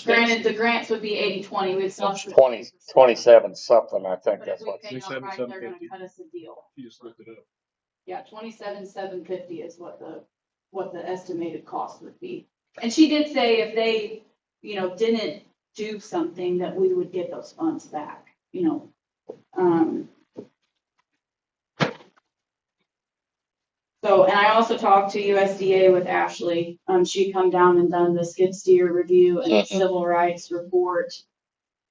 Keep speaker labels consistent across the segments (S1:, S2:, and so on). S1: Granted, the grants would be eighty, twenty, we'd still. have to-
S2: Twenty, twenty-seven something, I think
S1: But if
S2: that's
S1: we
S2: what.
S1: pay outright, they're gonna cut us a deal.
S3: He just looked it up.
S1: Yeah, twenty-seven, seven fifty is what the, what the estimated cost would be. And she did say if they, you know, didn't do something, that we would get those funds back, you know. Um. So, and I also talked to USDA with Ashley. Um, she come down and done the skid steer review and the
S2: Mhm.
S1: civil rights report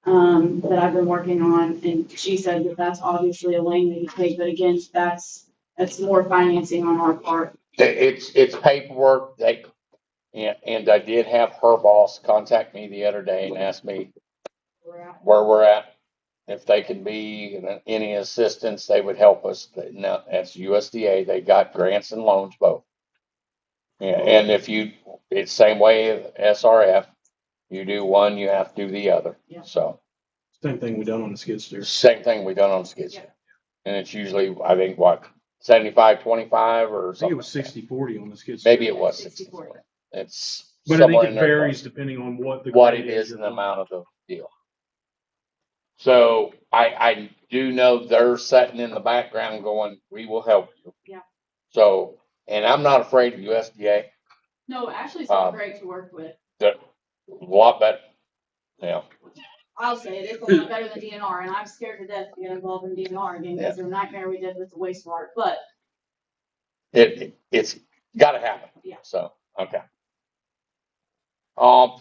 S1: um, that I've been working on, and she said that that's obviously a lane that you take, but again, that's, that's more financing on our part.
S2: It's, it's paperwork, they, and, and I did have her boss contact me the other day and ask me
S1: We're at-
S2: where we're at. If they could be in any assistance, they would help us. But Now, that's USDA, they got grants and loans both. Yeah, and if you, it's same way as SRF, you do one, you have to do the other.
S1: Yeah.
S2: So,
S4: Same thing we done on the skid steer.
S2: same thing we done on skid steer. And it's usually, I think, what, seventy-five, twenty-five or
S4: I think it
S2: something?
S4: was sixty forty on the skid steer.
S2: Maybe it was
S1: 64.
S2: sixty-four. It's.
S4: But I think
S2: somewhere
S4: it
S2: in there.
S4: varies depending on what the.
S2: What
S4: grade
S2: it is and the
S4: you're-
S2: amount of the deal. So I, I do know they're sitting in the background going, we will help you.
S1: Yeah.
S2: So, and I'm not afraid of USDA,
S1: No, Ashley's
S2: Um,
S1: been great to work with.
S2: they're a lot better. Yeah,
S1: I'll say it, it's a lot better than DNR, and I'm scared to death to get involved in DNR again, because the nightmare we did with the wastewater, but
S2: it, it- it's gotta happen.
S1: Yeah.
S2: So, okay. Um,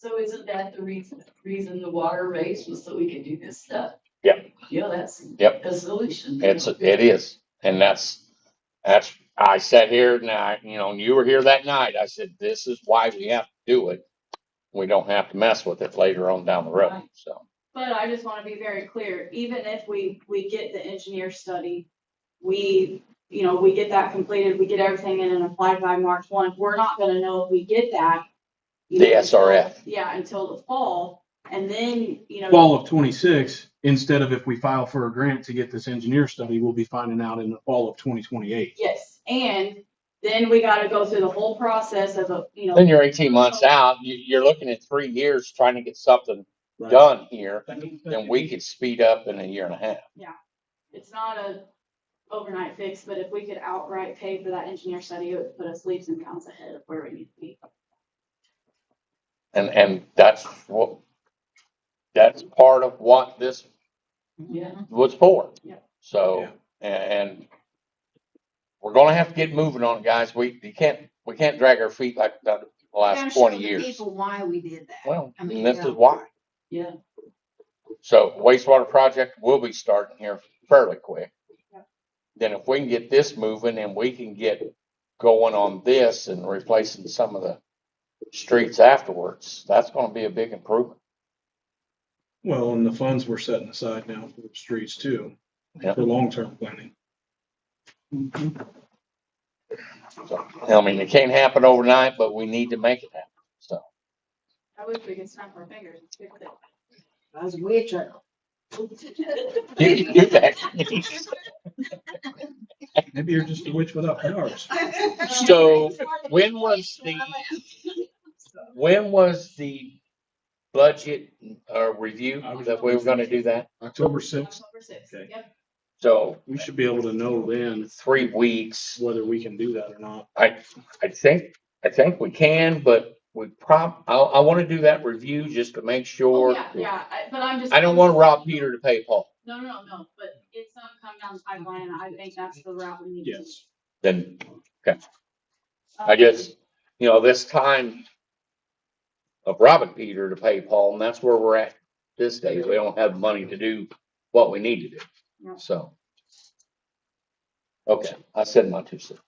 S5: So isn't that the reason, reason the water raised was so we could do this stuff?
S2: Yep.
S5: Yeah, that's.
S2: Yep.
S5: A solution.
S2: It's, it is, and that's, that's, I sat here and I, you know, and you were here that night, I said, this is why we have to do it. We don't have to mess with it later on down the road,
S5: Right.
S2: so,
S1: But I just wanna be very clear, even if we, we get the engineer study, we, you know, we get that completed, we get everything in and applied by March one, we're not gonna know if we get that. you
S2: The
S1: know,
S2: SRF.
S1: Yeah, until the fall, and then, you know.
S4: Fall of twenty-six, instead of if we file for a grant to get this engineer study, we'll be finding out in the fall of twenty twenty-eight.
S1: Yes, and then we gotta go through the whole process of, a you
S2: then
S1: know,
S2: you're eighteen months out, you, you're looking at three years trying to get something done here. And we could speed up in a year and a half,
S1: it's not a overnight fix, but if we could outright pay for that engineer study, it would put us leaps and bounds ahead of where we need to be.
S2: and, and that's what, that's part of what this
S5: Yeah.
S2: was for.
S1: Yeah.
S2: So, and, and we're gonna have to get moving on, it, guys. We, we can't, we can't drag our feet like the
S6: gotta
S2: last
S6: show
S2: twenty
S6: the
S2: years.
S6: People why we did that.
S2: Well,
S6: I mean,
S2: and this
S6: yeah.
S2: is why.
S5: Yeah.
S2: So wastewater project will be starting here fairly quick.
S1: Yeah.
S2: Then if we can get this moving and we can get going on this and replacing some of the streets afterwards, that's gonna be a big improvement.
S4: Well, and the funds we're setting aside now for the streets too,
S2: Yeah.
S4: for long-term planning.
S2: So, I mean, it can't happen overnight, but we need to make it happen, so.
S1: I wish we could snap our fingers and fix it.
S6: I was witching.
S2: You can do that.
S4: Maybe you're just a witch without powers.
S2: So when was the, when was the budget uh, review that we were gonna do that?
S4: October sixth,
S1: October sixth,
S4: Okay.
S1: yep.
S2: So
S4: we should be able to know then
S2: three weeks,
S4: whether we can do that or not.
S2: I think, I think we can, but we prob, I, I wanna do that review just to make
S1: Oh,
S2: sure.
S1: Yeah, yeah, I- but I'm just.
S2: I don't wanna rob Peter to pay Paul.
S1: No, no, no, but it's not come down the pipeline, and I think that's the route we need to.
S4: Yes.
S2: Then I
S1: Um,
S2: just, you know, this time of robbing Peter to pay Paul, and that's where we're at this day. We don't have money to do what we need to do,
S1: No.
S2: so. Okay, I said my two cents.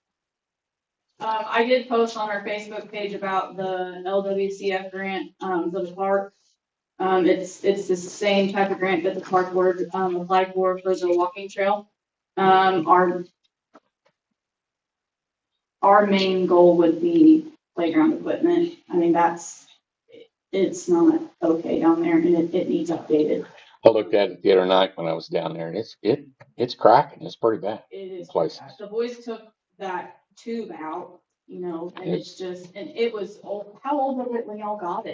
S1: Um, I did post on our Facebook page about the LWCF grant, um, for the park. Um, it's, it's the same type of grant that the park board, um, applied for, for the walking trail. Um, our our main goal would be playground equipment. I mean, that's, it's not okay down there and it, it needs updated.
S2: I looked at it the other night when I was down there, and it's, it, it's cracking. It's pretty bad
S1: It is
S2: in places.
S1: The boys took that tube out, you know, and it's just, and it was old, how old was it when y'all got it?